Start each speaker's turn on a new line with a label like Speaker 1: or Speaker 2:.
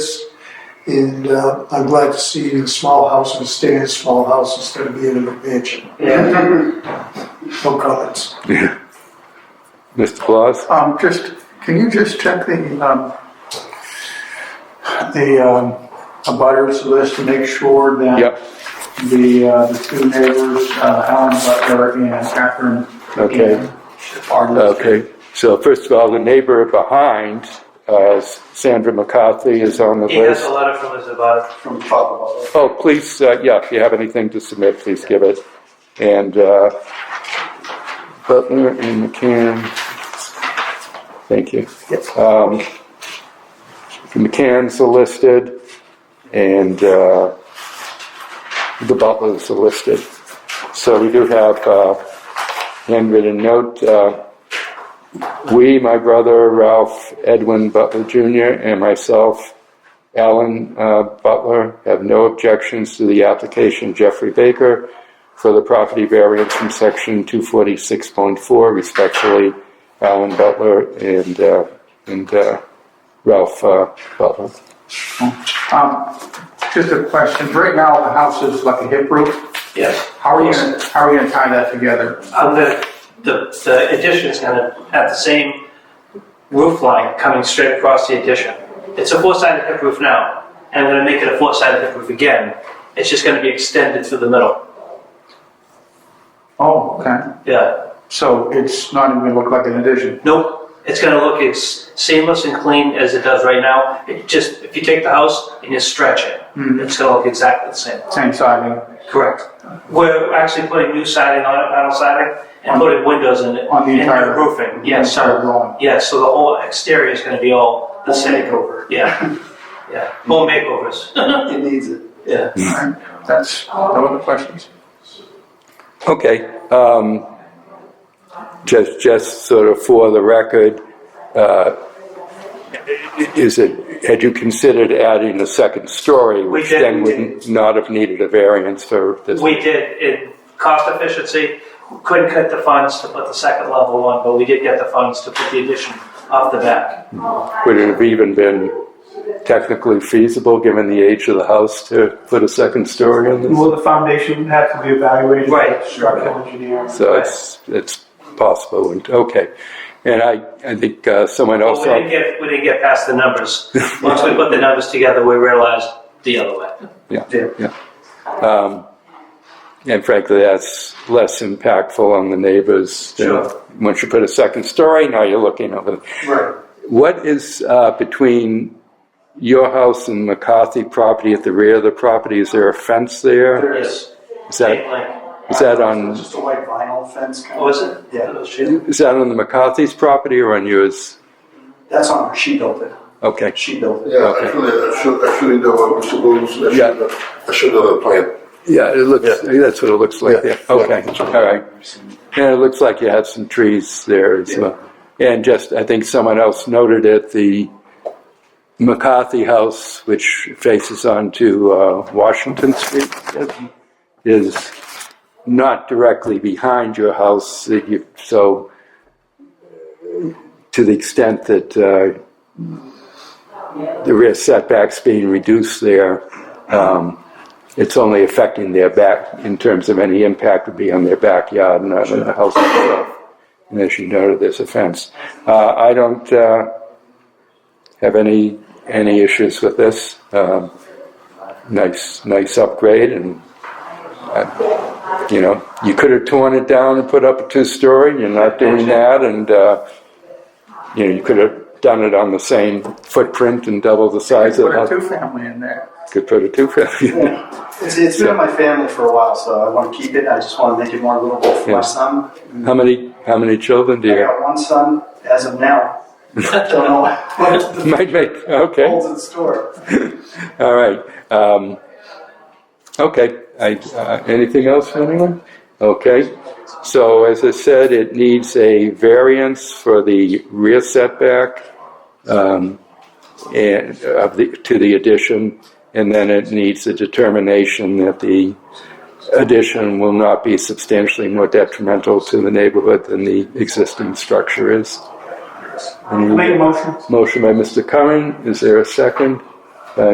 Speaker 1: And uh, I'm glad to see the small houses stay in small house instead of being in a mansion.
Speaker 2: Yeah.
Speaker 1: No comments.
Speaker 3: Mr. Claus?
Speaker 4: Um, just, can you just check the, um, the, um, abutters list to make sure that
Speaker 3: Yep,
Speaker 4: the, uh, the two neighbors, uh, Alan Butler and Catherine.
Speaker 3: Okay.
Speaker 4: Gannon Are listed.
Speaker 3: okay. So first of all, the neighbor behind, uh, Sandra McCarthy is on the
Speaker 2: He has
Speaker 3: list.
Speaker 2: a letter from his advisor.
Speaker 4: From Bob Butler.
Speaker 3: Oh, please, uh, yeah, if you have anything to submit, please give it. And uh, Butler and McCann, thank you. Um, The McCanns are listed, and uh, the Butlers are listed. So we do have uh, handwritten note. uh, We, my brother Ralph Edwin Butler Jr., and myself, Alan uh, Butler have no objections to the application Jeffrey Baker for the property variance from section 246.4. Respectfully, Alan Butler and, uh, and uh, Ralph uh, Butler.
Speaker 4: Um, just a question, right now the house is like a hip roof,
Speaker 2: Yes.
Speaker 4: how are you, gonna- how are you gonna tie that together?
Speaker 2: Um, the, the, the addition's gonna have the same roof line coming straight across the addition. It's a four-sided hip roof now, and I'm gonna make it a four-sided hip roof again. It's just gonna be extended through the middle.
Speaker 4: Oh, okay,
Speaker 2: Yeah.
Speaker 4: so it's not even gonna look like an addition,
Speaker 2: Nope. It's gonna look as seamless and clean as it does right now. It just, if you take the house and you stretch it, it's gonna look exactly the same.
Speaker 4: same siding,
Speaker 2: Correct. We're actually putting new siding on it, panel siding, and putting windows in it.
Speaker 4: On the
Speaker 2: and new
Speaker 4: entire-
Speaker 2: Roofing, yeah,
Speaker 4: entire
Speaker 2: so,
Speaker 4: dwelling.
Speaker 2: yeah, so the whole exterior is gonna be all the same. Makeover. Yeah, yeah, home makeovers. It needs it.
Speaker 3: Mm.
Speaker 2: Yeah.
Speaker 4: Alright, that's, no other questions?
Speaker 3: Okay. um, Just, just sort of for the record, uh, is it, had you considered adding a second story? Which
Speaker 2: did,
Speaker 3: then
Speaker 2: we
Speaker 3: would not have needed a variance for this?
Speaker 2: We did, in cost efficiency, couldn't cut the funds to put the second level on, but we did get the funds to put the addition off the back.
Speaker 3: Would it have even been technically feasible, given the age of the house, to put a second story in this?
Speaker 5: Well, the foundation had to be evaluated by
Speaker 2: Right.
Speaker 5: a structural engineer.
Speaker 3: So it's, it's possible, and, okay. And I, I think uh, someone
Speaker 2: But
Speaker 3: else,
Speaker 2: we didn't get, we didn't get past the numbers. Once we put the numbers together, we realized the other way.
Speaker 3: yeah, yeah. Um, And frankly, that's less impactful on the neighbors. than-
Speaker 2: Sure.
Speaker 3: Once you put a second story, now you're looking over.
Speaker 2: Right.
Speaker 3: What is uh, between your house and McCarthy property at the rear of the property? Is there a fence there?
Speaker 2: Yes.
Speaker 3: Is that, is that on?
Speaker 5: Just a white vinyl fence kind of.
Speaker 2: Oh, is it?
Speaker 5: Yeah.
Speaker 2: Oh, shit.
Speaker 3: Is that on the McCarthy's property or on yours?
Speaker 5: That's on her, she built it,
Speaker 3: Okay,
Speaker 5: she built it.
Speaker 6: Yeah, actually, I should, actually, there were rules, I
Speaker 3: Yeah.
Speaker 6: should, I should have applied.
Speaker 3: yeah, it looks, that's what it looks like
Speaker 6: Yeah.
Speaker 3: there. Okay, all right. And it looks like you have some trees there as well. And just, I think someone else noted it, the McCarthy House, which faces onto uh, Washington Street, is not directly behind your house, that you- so to the extent that uh, the rear setback's being reduced there, um, it's only affecting their back, in terms of any impact would be on their backyard, not on the house itself. And as you noted, there's a fence. Uh, I don't uh, have any, any issues with this. Um, Nice, nice upgrade, and, uh, you know, you could have torn it down and put up a two-story, you're not doing that, and, uh, you know, you could have done it on the same footprint and double the size of the
Speaker 4: Put a
Speaker 3: house.
Speaker 4: two-family in there.
Speaker 3: Could put a two-family.
Speaker 5: It's, it's been in my family for a while, so I want to keep it, I just want to make it more livable for
Speaker 3: Yeah.
Speaker 5: my son.
Speaker 3: How many, how many children do
Speaker 5: I
Speaker 3: you have?
Speaker 5: got one son as of now, don't know what the
Speaker 3: Might make, okay,
Speaker 5: holds in store.
Speaker 3: all right. Um, okay, I, uh, anything else from anyone? Okay, so as I said, it needs a variance for the rear setback, um, and of the, to the addition, and then it needs a determination that the addition will not be substantially more detrimental to the neighborhood than the existing structure is. Any-
Speaker 5: Make a motion.
Speaker 3: Motion by Mr. Curran, is there a second?